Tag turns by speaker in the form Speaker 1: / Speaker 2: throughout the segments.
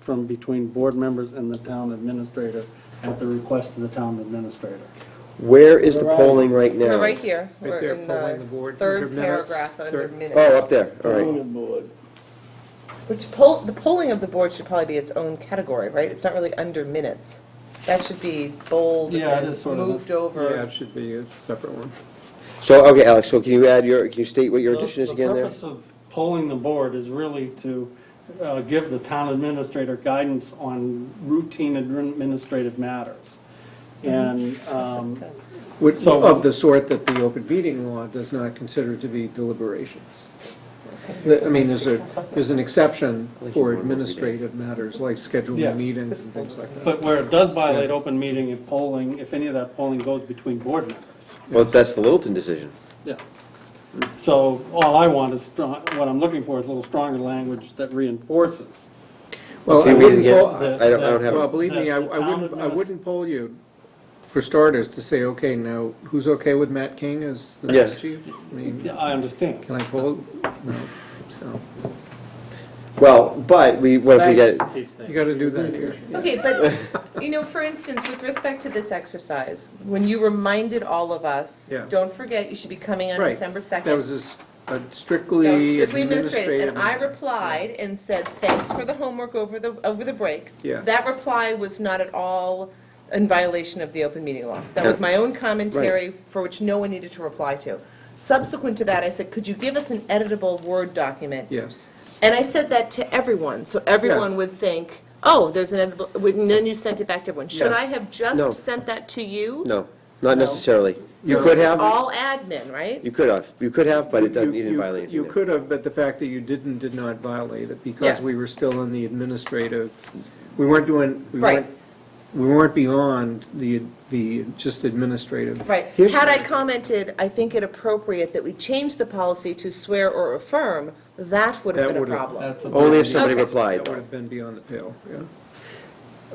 Speaker 1: from between board members and the town administrator at the request of the town administrator.
Speaker 2: Where is the polling right now?
Speaker 3: Right here.
Speaker 4: Right
Speaker 3: We're
Speaker 4: there,
Speaker 3: in
Speaker 4: polling the board.
Speaker 3: Third
Speaker 4: Under minutes,
Speaker 3: paragraph under
Speaker 4: third-
Speaker 3: minutes.
Speaker 2: Oh, up there, all right.
Speaker 5: Planning board.
Speaker 3: Which poll, the polling of the board should probably be its own category, right? It's not really under minutes. That should be bold
Speaker 1: Yeah, it
Speaker 3: and
Speaker 1: is sort of a-
Speaker 3: moved
Speaker 4: Yeah,
Speaker 3: over.
Speaker 4: it should be a separate one.
Speaker 2: So, okay, Alex, so can you add your, can you state what your addition is again
Speaker 1: The
Speaker 2: there?
Speaker 1: purpose of polling the board is really to uh, give the town administrator guidance on routine administrative matters. And um,
Speaker 4: Which,
Speaker 1: So-
Speaker 4: of the sort that the open meeting law does not consider to be deliberations. The- I mean, there's a, there's an exception for administrative matters like scheduling
Speaker 1: Yes.
Speaker 4: meetings and things like that.
Speaker 1: But where it does violate open meeting and polling, if any of that polling goes between board members.
Speaker 2: Well, that's the Littleton decision.
Speaker 1: Yeah. So all I want is, strong. what I'm looking for is a little stronger language that reinforces.
Speaker 4: Well,
Speaker 2: Can
Speaker 4: I
Speaker 2: you read it
Speaker 4: wouldn't
Speaker 2: again?
Speaker 4: poll,
Speaker 1: that-
Speaker 2: I don't, I don't have
Speaker 4: well,
Speaker 2: it.
Speaker 4: believe me, I I wouldn't, I wouldn't poll you, for starters, to say, okay, now, who's okay with Matt King as the
Speaker 2: Yes.
Speaker 4: next chief? I mean,
Speaker 1: Yeah, I understand.
Speaker 4: can I poll? No, so,
Speaker 2: Well, but we, what if we get,
Speaker 4: you gotta do that here.
Speaker 3: Okay, but, you know, for instance, with respect to this exercise, when you reminded all of us,
Speaker 4: Yeah.
Speaker 3: don't forget, you should be coming on
Speaker 4: Right.
Speaker 3: December 2nd.
Speaker 4: That was a s- a
Speaker 3: That was
Speaker 4: strictly
Speaker 3: strictly
Speaker 4: administrative.
Speaker 3: administrative, and I replied and said, thanks for the homework over the, over the break.
Speaker 4: Yeah.
Speaker 3: That reply was not at all in violation of the open meeting law. That was my own commentary for which no one needed to reply to. Subsequent to that, I said, could you give us an editable Word document?
Speaker 4: Yes.
Speaker 3: And I said that to everyone, so everyone
Speaker 4: Yes.
Speaker 3: would think, oh, there's an editable, and then you sent it back to everyone. Should
Speaker 4: Yes.
Speaker 3: I have
Speaker 2: No.
Speaker 3: just sent that to you?
Speaker 2: no, not necessarily. You
Speaker 4: No.
Speaker 2: could
Speaker 3: It's
Speaker 2: have,
Speaker 3: all admin, right?
Speaker 2: you could have, you could have, but it doesn't,
Speaker 4: You-
Speaker 2: you didn't
Speaker 4: you-
Speaker 2: violate anything.
Speaker 4: You
Speaker 2: there.
Speaker 4: could have, but the fact that you didn't, did not violate it, because
Speaker 3: Yeah.
Speaker 4: we were still in the administrative, we weren't doing, we
Speaker 3: Right.
Speaker 4: weren't, we weren't beyond the, the, just administrative.
Speaker 3: Right.
Speaker 2: Here's-
Speaker 3: Had I commented, I think it appropriate that we change the policy to swear or affirm, that would have
Speaker 4: That
Speaker 3: been a
Speaker 4: would've-
Speaker 3: problem.
Speaker 1: That's a-
Speaker 2: Only if somebody
Speaker 3: Okay.
Speaker 2: replied,
Speaker 4: That would
Speaker 2: though.
Speaker 4: have been beyond the pale, yeah.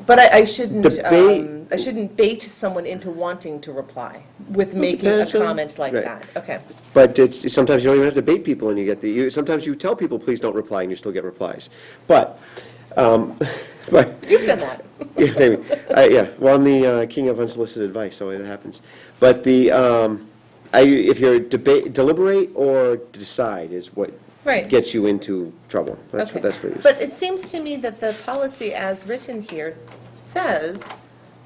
Speaker 3: But I, I shouldn't,
Speaker 2: Debate-
Speaker 3: um, I shouldn't bait someone into wanting to reply with making a
Speaker 2: depends on-
Speaker 3: comment like
Speaker 2: right.
Speaker 3: that. Okay.
Speaker 2: But it's, sometimes you don't even have to bait people and you get the, you, sometimes you tell people, please don't reply, and you still get replies. But, um, but,
Speaker 3: You've done that.
Speaker 2: Yeah, maybe. I- Yeah, well, I'm the uh, king of unsolicited advice, so it happens. But the, um, I- if you're debate, deliberate or decide is what
Speaker 3: Right.
Speaker 2: gets you into trouble. That's
Speaker 3: Okay.
Speaker 2: what, that's what it
Speaker 3: But
Speaker 2: is.
Speaker 3: it seems to me that the policy as written here says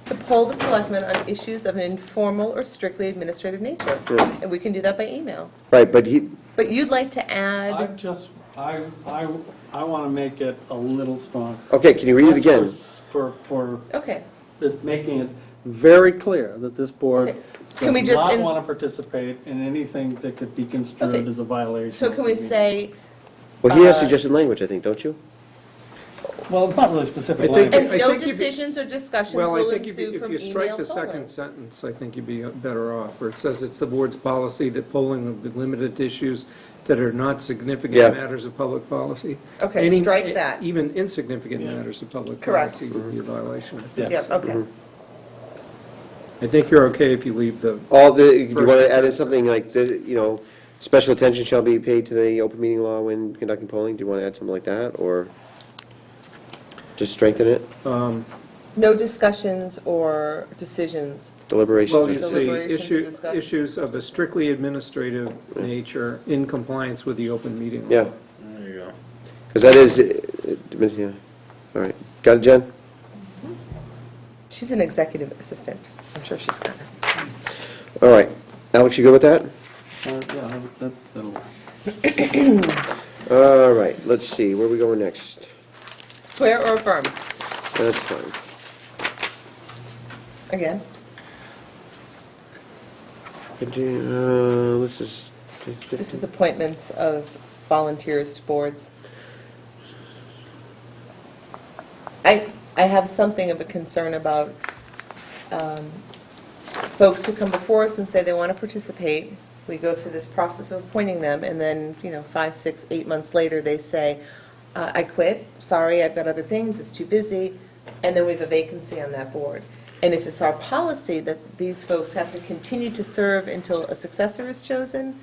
Speaker 3: to poll the selectmen on issues of an informal or strictly administrative nature.
Speaker 2: Yeah.
Speaker 3: And we can do that by email.
Speaker 2: Right, but he,
Speaker 3: But you'd like to
Speaker 1: I
Speaker 3: add,
Speaker 1: just, I, I, I want to make it a little stronger.
Speaker 2: okay, can you read it again?
Speaker 1: For, for
Speaker 3: okay.
Speaker 1: it- making it very clear that this board
Speaker 3: Can we
Speaker 1: does
Speaker 3: just
Speaker 1: not
Speaker 3: in-
Speaker 1: want to participate in anything that could be construed
Speaker 3: Okay.
Speaker 1: as a violation.
Speaker 3: So can
Speaker 1: of
Speaker 3: we
Speaker 1: the-
Speaker 3: say,
Speaker 2: Well, he
Speaker 3: Uh,
Speaker 2: has suggested language, I think, don't you?
Speaker 1: Well, it's not really specific
Speaker 4: I think-
Speaker 1: language.
Speaker 3: and
Speaker 4: I
Speaker 3: no
Speaker 4: think if you-
Speaker 3: decisions or discussions
Speaker 4: Well, I
Speaker 3: will
Speaker 4: think if
Speaker 3: ensue
Speaker 4: you, if
Speaker 3: from
Speaker 4: you strike
Speaker 3: email
Speaker 4: the second
Speaker 3: polling?
Speaker 4: sentence, I think you'd be better off, where it says it's the board's policy that polling will be limited to issues that are not significant
Speaker 2: Yeah.
Speaker 4: matters of public policy.
Speaker 3: Okay,
Speaker 4: Any-
Speaker 3: strike that.
Speaker 4: Even insignificant matters of public
Speaker 3: Correct.
Speaker 4: policy would be a violation, I think.
Speaker 3: Yep, okay.
Speaker 4: I think you're okay if you leave the,
Speaker 2: All the, you
Speaker 4: First
Speaker 2: want
Speaker 4: and
Speaker 2: to add in
Speaker 4: second.
Speaker 2: something like, the you know, special attention shall be paid to the open meeting law when conducting polling? Do you want to add something like that, or just strengthen it?
Speaker 4: um,
Speaker 3: No discussions or decisions.
Speaker 4: well,
Speaker 2: Deliberations?
Speaker 4: you
Speaker 3: Deliberations
Speaker 4: see,
Speaker 3: and
Speaker 4: issue,
Speaker 3: discussions.
Speaker 4: issues of a strictly administrative nature in compliance with the open meeting law.
Speaker 2: Yeah.
Speaker 5: There you go.
Speaker 2: Because that is, uh, uh, yeah, all right. Got it, Jen?
Speaker 3: She's an executive assistant. I'm sure she's got it.
Speaker 2: All right. Alex, you good with that?
Speaker 1: Uh, yeah, that- that'll-
Speaker 2: All right, let's see, where are we going next?
Speaker 3: Swear or affirm,
Speaker 2: That's fine.
Speaker 3: again.
Speaker 2: Could you, uh, This is,
Speaker 3: This is appointments of volunteers to boards. I, I have something of a concern about um, folks who come before us and say they want to participate. We go through this process of appointing them, and then, you know, five, six, eight months later, they say, uh, I quit, sorry, I've got other things, it's too busy, and then we have a vacancy on that board. And if it's our policy that these folks have to continue to serve until a successor is chosen,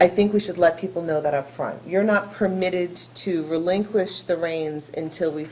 Speaker 3: I think we should let people know that up front. You're not permitted to relinquish the reins until we